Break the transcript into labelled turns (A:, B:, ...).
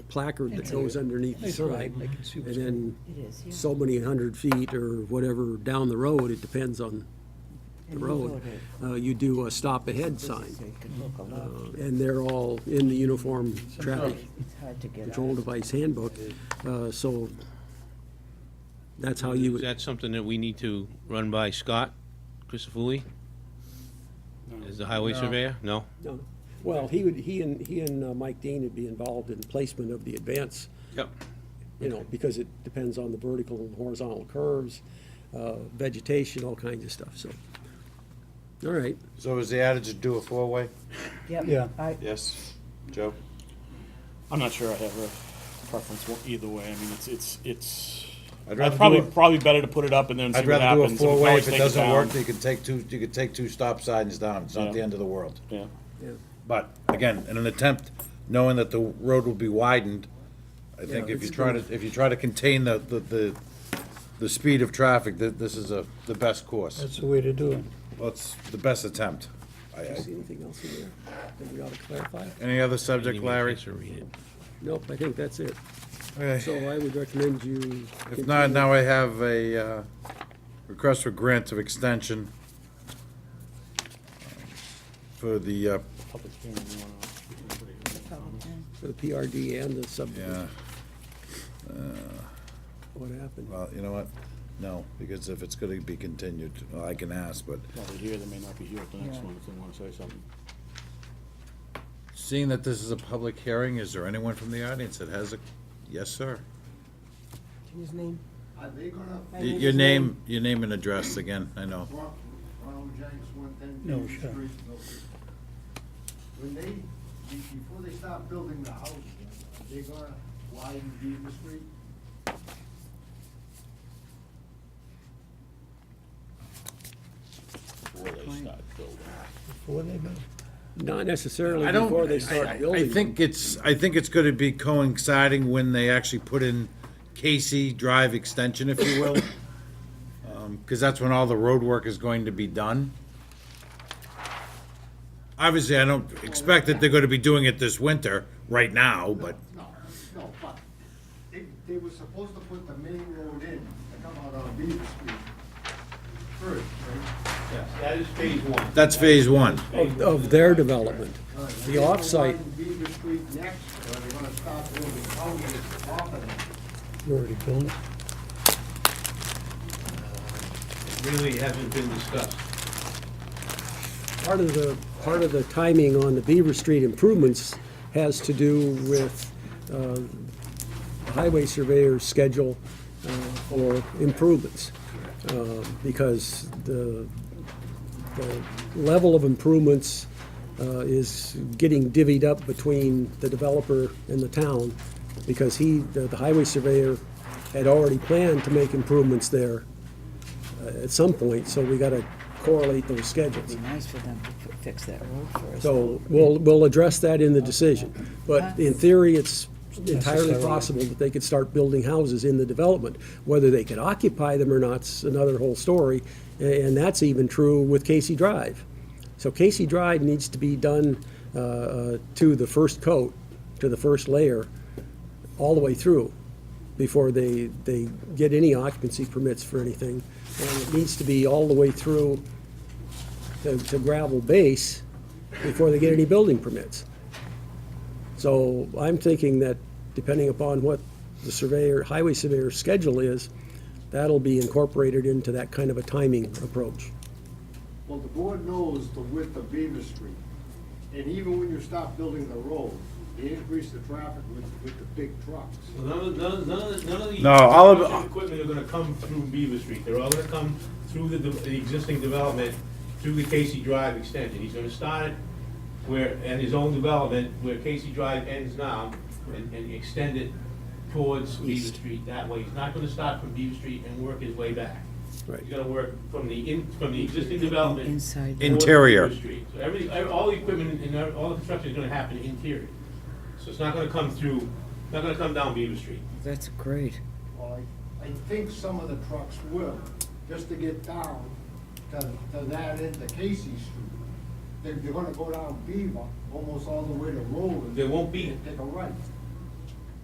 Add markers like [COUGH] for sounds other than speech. A: placard that
B: It's
A: goes underneath the
B: It's all right,
A: sign.
B: I can see
A: And
B: what's going
A: then
C: It is, yeah.
A: so many hundred feet or whatever down the road, it depends on the
C: And you
A: road. uh,
C: voted.
A: You do a stop ahead
C: This
A: sign.
C: is so you can look a
A: Uh,
C: lot.
A: And they're all in the uniform traffic
C: It's hard to get
A: control
C: out.
A: device handbook. Uh, So that's how you
D: Is
A: would,
D: that something that we need to run by Scott Christofouli? As the highway surveyor? No?
A: No. well, he would, he and, he and uh, Mike Dean would be involved in placement of the advance
D: Yep.
A: you know, because it depends on the vertical and horizontal curves, uh, vegetation, all kinds of stuff, so. All right,
E: So is the adage to do a four-way?
C: Yep,
B: Yeah.
C: I,
E: Yes. Joe?
F: I'm not sure I have a preference one- either way. I mean, it's it's it's.
E: I'd rather
F: it's probably
E: do a-
F: probably better to put it up and then see
E: I'd
F: what
E: rather do a
F: happens. we can
E: four-way.
F: always
E: If it
F: take
E: doesn't
F: down.
E: work, you could take two, you could take two stop signs down. It's not the
F: Yeah.
E: end of the world.
F: yeah.
A: yeah,
E: But again, in an attempt, knowing that the road will be widened, I think
A: Yeah,
E: if you
A: it's
E: try to, if you try to contain the, the, the, the speed of traffic, that this is a, the best course.
B: That's the way to do it.
E: Well, it's the best attempt. I-
A: do you
E: I-
A: see anything else in there that we ought to clarify?
E: Any other subject,
D: Didn't even have a
E: Larry?
D: chance to read it.
A: Nope, I think that's it. So
E: Okay.
A: I would recommend you.
E: If not,
A: continue.
E: now I have a, uh, request for grant of extension for the, uh,
F: Public hearing, you wanna-
C: uh,
A: For the PRD and the sub,
E: yeah,
A: what happened?
E: well, you know what? No, because if it's gonna be continued, well, I can ask, but
F: While they're here, they may not be here at the next
C: Yeah.
F: one if they want to say something.
E: Seeing that this is a public hearing, is there anyone from the audience that has a, yes, sir?
C: his name? My
E: Y-
C: name
E: Your
C: is
E: name, your name and address again, I know.
G: Ronald James, one ten
B: No,
G: Union
B: sure.
G: Street, Milford. When they, be- before they start building the house, they're gonna widen Beaver Street.
B: Before they build.
A: Not necessarily
E: I don't-
A: before they
E: I- I-
A: start building.
E: I think it's, I think it's gonna be coinciding when they actually put in Casey Drive Extension, if you will. [COUGHS] Um, Cause that's when all the road work is going to be done. Obviously, I don't expect that they're gonna be doing it this winter, right now, but,
G: No, no, but they, they were supposed to put the main road in to come out on Beaver Street first, right?
D: That is phase one.
E: that's phase one.
A: Of, of their development.
G: All right,
A: The
G: they're gonna
A: off-site,
G: widen Beaver Street next, or they're gonna start building houses off of it.
B: You already built it.
D: Really hasn't been discussed.
A: part of the, part of the timing on the Beaver Street improvements has to do with uh, the highway surveyor's schedule uh, for improvements. Uh, Because the, the level of improvements uh, is getting divvied up between the developer and the town, because he, the the highway surveyor had already planned to make improvements there uh, at some point, so we gotta correlate those schedules.
C: It'd be nice for them to fi- fix that road first.
A: So we'll, we'll address that in the decision. But in theory, it's entirely
B: Necessarily.
A: possible that they could start building houses in the development. Whether they could occupy them or not's another whole story, a- and that's even true with Casey Drive. So Casey Drive needs to be done uh, uh, to the first coat, to the first layer, all the way through before they, they get any occupancy permits for anything. And it needs to be all the way through to to gravel base before they get any building permits. So I'm thinking that depending upon what the surveyor, highway surveyor's schedule is, that'll be incorporated into that kind of a timing approach.
G: Well, the board knows the width of Beaver Street, and even when you stop building the road, they increase the traffic with, with the big trucks.
D: None of, none of, none of- none of the.
E: No, all of-
D: construction Equipment are gonna come through Beaver Street, they're all gonna come through the, de- the existing development, through the Casey Drive extension, he's gonna start it where, at his own development, where Casey Drive ends now, and, and extend it towards Beaver Street that way, he's not gonna start from Beaver Street and work his way back.
A: Right.
D: He's gonna work from the in, from the existing development.
C: Inside.
D: towards
E: Interior.
D: Beaver Street. So every, all the equipment and all the construction is gonna happen interior, so it's not gonna come through, not gonna come down Beaver Street.
C: That's great.
G: Well, I, I think some of the trucks will, just to get down to, to that end of Casey Street. They're, they're gonna go down Beaver, almost all the way to Roland.
D: There won't be-
G: and Take a right.